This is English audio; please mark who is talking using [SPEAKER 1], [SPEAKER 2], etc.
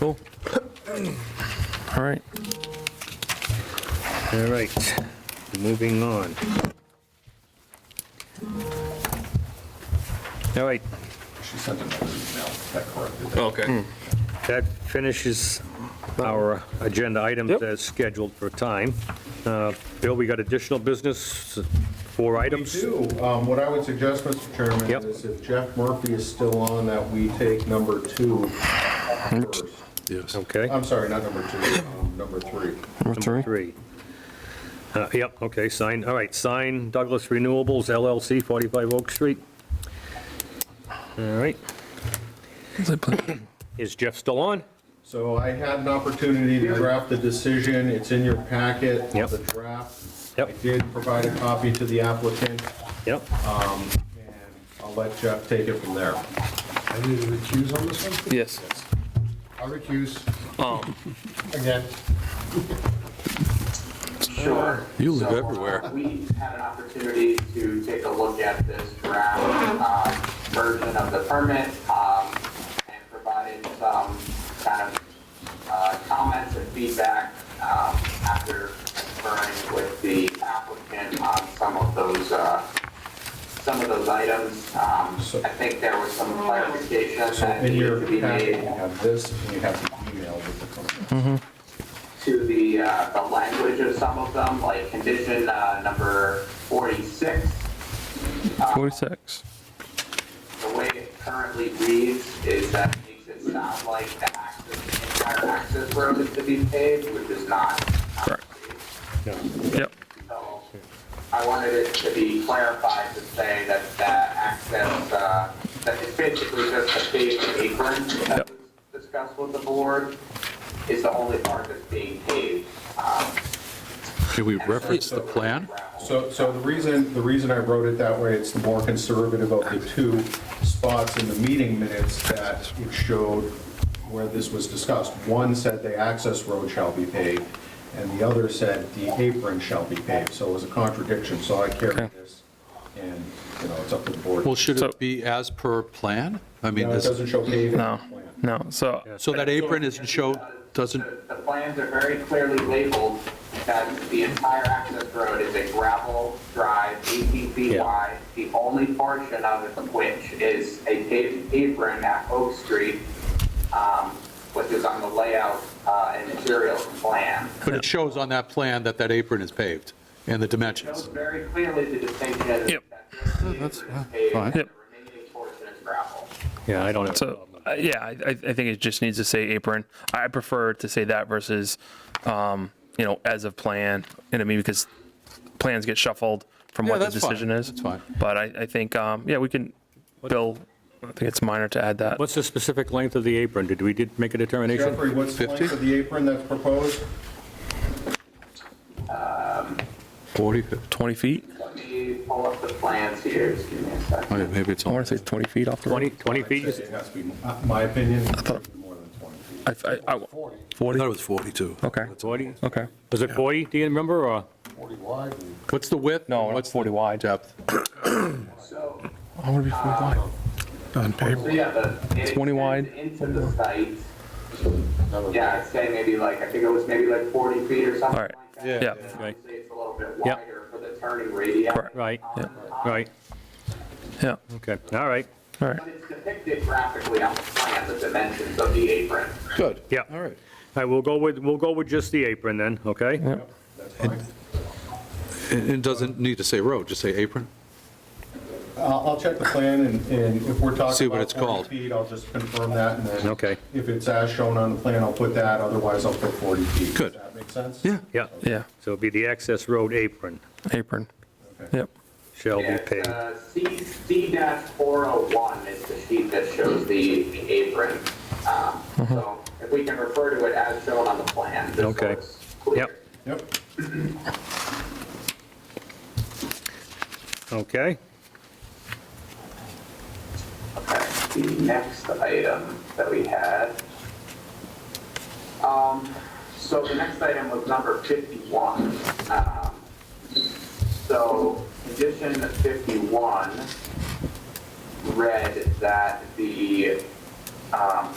[SPEAKER 1] Cool. All right.
[SPEAKER 2] All right, moving on. All right,
[SPEAKER 3] She sent another email that corrected that.
[SPEAKER 4] Okay.
[SPEAKER 2] that finishes our agenda items
[SPEAKER 1] Yep.
[SPEAKER 2] as scheduled for time. Uh, Bill, we got additional business, four items?
[SPEAKER 3] Two, um, what I would suggest, Mr. Chairman,
[SPEAKER 2] Yep.
[SPEAKER 3] is if Jeff Murphy is still on, that we take number two first.
[SPEAKER 4] Yes.
[SPEAKER 2] Okay.
[SPEAKER 3] I'm sorry, not number two, um, number Um, three.
[SPEAKER 1] Number three.
[SPEAKER 2] Three. Uh, Yep, okay, sign, all right, sign Douglas Renewables LLC, 45 Oak Street. All right, is Jeff still on?
[SPEAKER 3] So I had an opportunity to draft the decision, it's in your packet,
[SPEAKER 2] Yep.
[SPEAKER 3] the draft.
[SPEAKER 2] Yep.
[SPEAKER 3] I did provide a copy to the applicant,
[SPEAKER 2] Yep,
[SPEAKER 3] and I'll let Jeff take it from there.
[SPEAKER 5] I need to recuse on this one?
[SPEAKER 4] Yes.
[SPEAKER 5] I'll recuse. Again.
[SPEAKER 6] Sure.
[SPEAKER 4] You
[SPEAKER 6] So,
[SPEAKER 4] live
[SPEAKER 6] uh,
[SPEAKER 4] everywhere.
[SPEAKER 6] We had an opportunity to take a look at this draft um, version of the permit um, and provided some kind of uh, comments and feedback um, after conferring with the applicant on some of those, uh, some of those items. Um,
[SPEAKER 3] So-
[SPEAKER 6] I think there was some clarification
[SPEAKER 3] So
[SPEAKER 6] that
[SPEAKER 3] in your
[SPEAKER 6] needed to be
[SPEAKER 3] packet,
[SPEAKER 6] made
[SPEAKER 3] you have this, and you have the email with the company.
[SPEAKER 6] to the, uh, the language of some of them, like condition, uh, number forty-six. uh,
[SPEAKER 1] 46.
[SPEAKER 6] The way it currently reads is that it makes it sound like the access, the entire access road is to be paved, which is not.
[SPEAKER 1] Correct. Yep.
[SPEAKER 6] So I wanted it to be clarified to say that that access, uh, that it's basically just a paved apron
[SPEAKER 1] Yep.
[SPEAKER 6] that was discussed with the board is the only part that's being paved. Um,
[SPEAKER 4] Can we
[SPEAKER 6] and so
[SPEAKER 4] reference the
[SPEAKER 6] it's
[SPEAKER 4] plan?
[SPEAKER 6] gravel.
[SPEAKER 3] So, so the reason, the reason I wrote it that way, it's the more conservative of the two spots in the meeting minutes that it showed where this was discussed. One said the access road shall be paved, and the other said the apron shall be paved, so it was a contradiction, so I carried this, and, you know, it's up to the board.
[SPEAKER 4] Well, should
[SPEAKER 1] So-
[SPEAKER 4] it be as per plan? I mean,
[SPEAKER 3] No, it
[SPEAKER 4] is-
[SPEAKER 3] doesn't show paving
[SPEAKER 1] No,
[SPEAKER 3] on the plan.
[SPEAKER 1] no. So,
[SPEAKER 4] so that apron isn't show, doesn't,
[SPEAKER 6] The the plans are very clearly labeled that the entire access road is a gravel drive, 18 feet
[SPEAKER 2] Yeah.
[SPEAKER 6] wide. The only portion of it which is a paved apron at Oak Street, um, which is on the layout uh, and materials plan.
[SPEAKER 4] but it shows on that plan that that apron is paved and the
[SPEAKER 6] Shows
[SPEAKER 4] dimensions.
[SPEAKER 6] very clearly the distinction that
[SPEAKER 1] Yep.
[SPEAKER 6] just the apron is paved
[SPEAKER 4] uh, fine.
[SPEAKER 6] and the
[SPEAKER 1] Yep.
[SPEAKER 6] remaining portion is gravel.
[SPEAKER 2] yeah, I don't have a
[SPEAKER 1] so
[SPEAKER 2] problem.
[SPEAKER 1] uh, yeah, I, I I think it just needs to say apron. I prefer to say that versus, um, you know, as of plan. You know what I mean? Because plans get shuffled from
[SPEAKER 4] Yeah,
[SPEAKER 1] what the
[SPEAKER 4] that's fine.
[SPEAKER 1] decision is.
[SPEAKER 4] That's fine.
[SPEAKER 1] But I, I think, um, yeah, we can, Bill, I think it's minor to add that.
[SPEAKER 2] What's the specific length of the apron? Did we did make a determination?
[SPEAKER 3] Jeffrey, what's the length
[SPEAKER 4] 50?
[SPEAKER 3] of the apron that's proposed?
[SPEAKER 4] 40,
[SPEAKER 1] 20 feet?
[SPEAKER 6] Let me pull up the plans here, just give me a
[SPEAKER 4] oh,
[SPEAKER 6] second.
[SPEAKER 4] yeah, maybe it's,
[SPEAKER 1] I
[SPEAKER 4] all-
[SPEAKER 1] want to say 20 feet off the road.
[SPEAKER 2] 20, 20 feet?
[SPEAKER 3] It has to be, uh, my opinion, it has to be more than 20 feet.
[SPEAKER 1] I, I, I,
[SPEAKER 7] I
[SPEAKER 1] 40?
[SPEAKER 7] thought it was 42.
[SPEAKER 1] Okay,
[SPEAKER 2] 40?
[SPEAKER 1] okay.
[SPEAKER 2] Was it 40, do you remember, or?
[SPEAKER 4] what's the width?
[SPEAKER 1] No,
[SPEAKER 4] What's
[SPEAKER 1] it's
[SPEAKER 4] the
[SPEAKER 1] 40 wide.
[SPEAKER 4] Depth.
[SPEAKER 6] So
[SPEAKER 1] I want to be 40 wide.
[SPEAKER 7] On
[SPEAKER 6] So
[SPEAKER 7] paper.
[SPEAKER 6] yeah, the. it
[SPEAKER 1] 20 wide.
[SPEAKER 6] extends Into the site. Yeah, I'd say maybe like, I think it was maybe like 40 feet or something
[SPEAKER 1] All right.
[SPEAKER 6] like that.
[SPEAKER 4] Yeah.
[SPEAKER 1] Yeah.
[SPEAKER 6] And Obviously, it's a little bit
[SPEAKER 2] Yep.
[SPEAKER 6] wider for the turning radius.
[SPEAKER 1] Right.
[SPEAKER 2] Right,
[SPEAKER 1] Yeah.
[SPEAKER 6] Um,
[SPEAKER 2] right,
[SPEAKER 1] Yeah,
[SPEAKER 2] okay, all right,
[SPEAKER 1] all right.
[SPEAKER 6] But it's depicted graphically on the plan, the dimensions of the apron.
[SPEAKER 4] Good.
[SPEAKER 2] yeah.
[SPEAKER 4] All right.
[SPEAKER 2] All right, we'll go with, we'll go with just the apron then, okay?
[SPEAKER 4] And and doesn't need to say road, just say apron?
[SPEAKER 3] I'll I'll check the plan, and and if we're
[SPEAKER 4] See
[SPEAKER 3] talking
[SPEAKER 4] what it's
[SPEAKER 3] about 40
[SPEAKER 4] called.
[SPEAKER 3] feet, I'll just confirm that, and then...
[SPEAKER 2] Okay.
[SPEAKER 3] If it's as shown on the plan, I'll put that, otherwise I'll put 40 feet.
[SPEAKER 4] Good.
[SPEAKER 3] Does that make sense?
[SPEAKER 4] Yeah.
[SPEAKER 2] Yeah,
[SPEAKER 1] Yeah,
[SPEAKER 2] so it'll be the access road apron
[SPEAKER 1] apron.
[SPEAKER 3] Okay.
[SPEAKER 1] Yep.
[SPEAKER 2] shall
[SPEAKER 6] Yeah,
[SPEAKER 2] be
[SPEAKER 6] it's,
[SPEAKER 2] paved.
[SPEAKER 6] uh, C, C dash 401 is the sheet that shows the the apron. Um,
[SPEAKER 1] Mm-hmm.
[SPEAKER 6] So if we can refer to it as shown on the plan, just so
[SPEAKER 2] Okay.
[SPEAKER 6] it's clear.
[SPEAKER 2] Yep.
[SPEAKER 3] Yep.
[SPEAKER 2] Okay,
[SPEAKER 6] Okay, the next item that we had. Um, so the next item was number 51. Um, so condition 51 read that the, um,